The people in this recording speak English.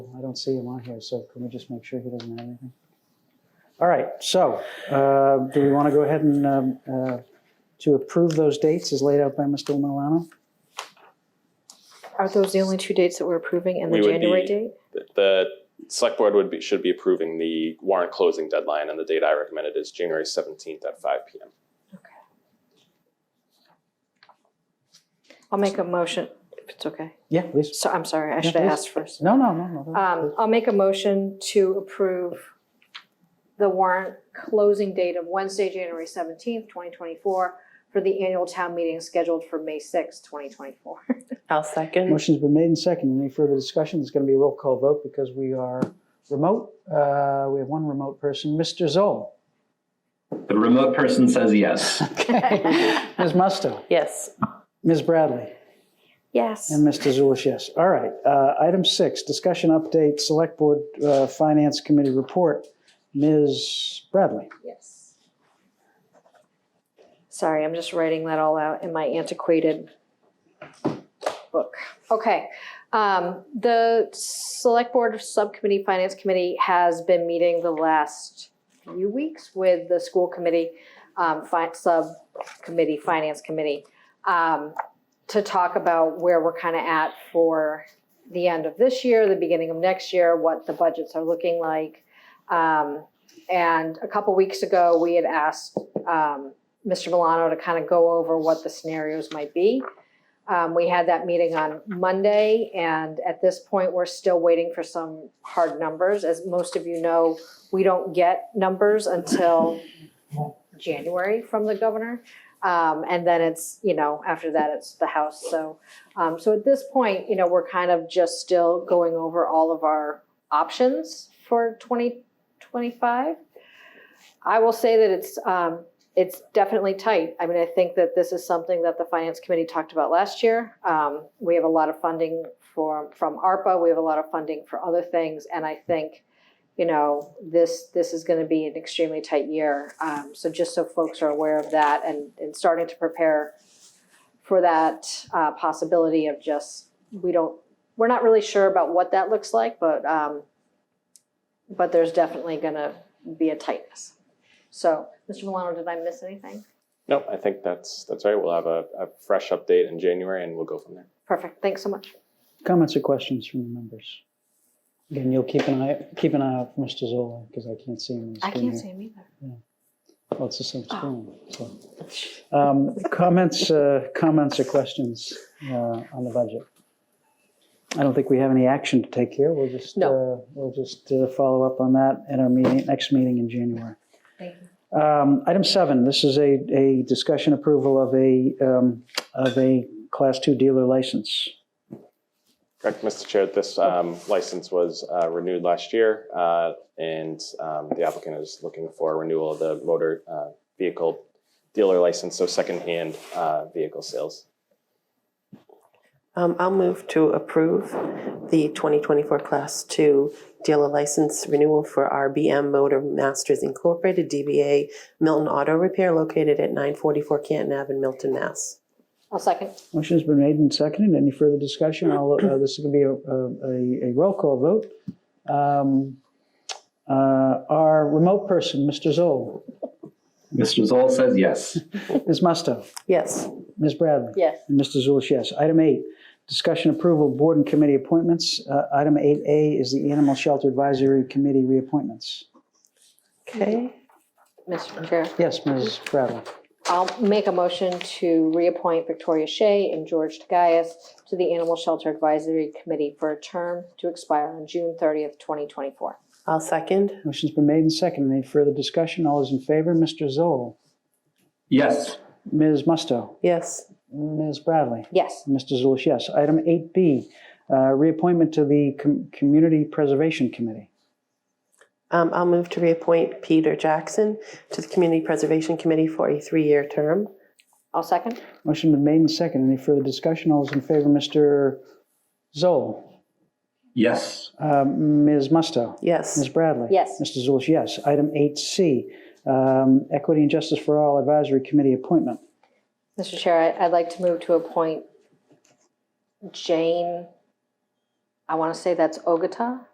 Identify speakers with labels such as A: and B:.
A: I don't see him on here, so can we just make sure he doesn't have anything? All right, so uh, do we want to go ahead and, um, uh, to approve those dates as laid out by Mr. Milano?
B: Are those the only two dates that we're approving and the
C: We would
B: January
C: be-
B: date?
C: The- The select board would be, should be approving the warrant closing deadline and the date I recommended is January seventeenth at five P M.
B: I'll make a motion, if it's okay.
A: Yeah, please.
B: So, I'm sorry, I should have
A: please.
B: asked first.
A: No, no, no, no.
B: Um, I'll make a motion to approve the warrant closing date of Wednesday, January seventeenth, twenty twenty-four for the annual town meeting scheduled for May sixth, twenty twenty-four.
D: I'll second.
A: Motion's been made and seconded. Any further discussion? It's going to be a roll call vote because we are remote. Uh, We have one remote person, Mr. Zoll.
E: The remote person says yes.
A: Okay. Ms. Musto,
D: Yes.
A: Ms. Bradley,
B: Yes.
A: and Mr. Zulish, yes. All right. uh, Item six, discussion update, Select Board uh, Finance Committee report. Ms. Bradley.
B: Yes. Sorry, I'm just writing that all out in my antiquated book. Okay. Um, the Select Board Subcommittee Finance Committee has been meeting the last few weeks with the school committee, um, fi- subcommittee, finance committee, um, to talk about where we're kind of at for the end of this year, the beginning of next year, what the budgets are looking like. Um, and a couple weeks ago, we had asked um, Mr. Milano to kind of go over what the scenarios might be. Um, We had that meeting on Monday, and at this point, we're still waiting for some hard numbers. As most of you know, we don't get numbers until January from the governor. Um, And then it's, you know, after that, it's the House. So, um, so at this point, you know, we're kind of just still going over all of our options for 20, 25. I will say that it's, um, it's definitely tight. I mean, I think that this is something that the finance committee talked about last year. Um, we have a lot of funding for, from ARPA, we have a lot of funding for other things, and I think, you know, this, this is gonna be an extremely tight year. Um, so just so folks are aware of that and, and starting to prepare for that, uh, possibility of just, we don't, we're not really sure about what that looks like, but, um, but there's definitely gonna be a tightness. So, Mr. Milano, did I miss anything?
C: No, I think that's, that's all right. We'll have a, a fresh update in January and we'll go from there.
B: Perfect, thanks so much.
A: Comments or questions from the members? Again, you'll keep an eye, keep an eye out for Mr. Zoll because I can't see him. on the
B: I
A: screen here.
B: can't see Oh. him either.
A: Well, it's the same screen. so. Um, Comments, uh, comments or questions uh, on the budget? I don't think we have any action to take here. We'll just,
D: No.
A: uh, we'll just uh, follow up on that at our meeting, next meeting in January.
B: Thank you.
A: Um, Item seven, this is a, a discussion approval of a, um, of a Class Two dealer license.
C: Correct, Mr. Chair, this um, license was uh, renewed last year, uh, and um, the applicant is looking for a renewal of the motor uh, vehicle dealer license, so secondhand uh, vehicle sales.
D: Um, I'll move to approve the 2024 Class 2 dealer license renewal for RBM Motor Masters Incorporated, DBA Milton Auto Repair located at 944 Canton Ave in Milton, Mass.
B: I'll second.
A: Motion's been made and seconded. Any further discussion? I'll, uh, this is going to be a, a, a roll call vote. Um, uh, Our remote person, Mr. Zoll,
E: Mr. Zoll says yes.
A: Ms. Musto,
D: Yes.
A: Ms. Bradley,
B: Yes.
A: and Mr. Zulish, yes. Item eight, discussion approval, of board and committee appointments. Uh, Item eight A is the Animal Shelter Advisory Committee reappointments.
D: Okay.
B: Mr. Chair,
A: Yes, Ms. Bradley.
B: I'll make a motion to reappoint Victoria Shea and George Tagayas to the Animal Shelter Advisory Committee for a term to expire on June thirtieth, twenty twenty-four.
D: I'll second.
A: Motion's been made and seconded. Any further discussion? All those in favor, Mr. Zoll,
E: Yes.
A: Ms. Musto,
D: Yes.
A: Ms. Bradley.
B: Yes,
A: Mr. Zulish, yes. Item 8B, uh, reappointment to the Com- Community Preservation Committee.
D: Um, I'll move to reappoint Peter Jackson to the Community Preservation Committee for a three-year term.
B: I'll second.
A: Motion been made and second. Any further discussion? All those in favor, Mr. Zoll,
E: Yes.
A: uh, Ms. Musto, Ms.
D: Yes.
A: Bradley.
B: Yes.
A: Mr. Zulish, yes. Item 8C, um, Equity and Justice for All Advisory Committee appointment.
B: Mr. Chair, I- I'd like to move to appoint Jane, I want to say that's Ogata,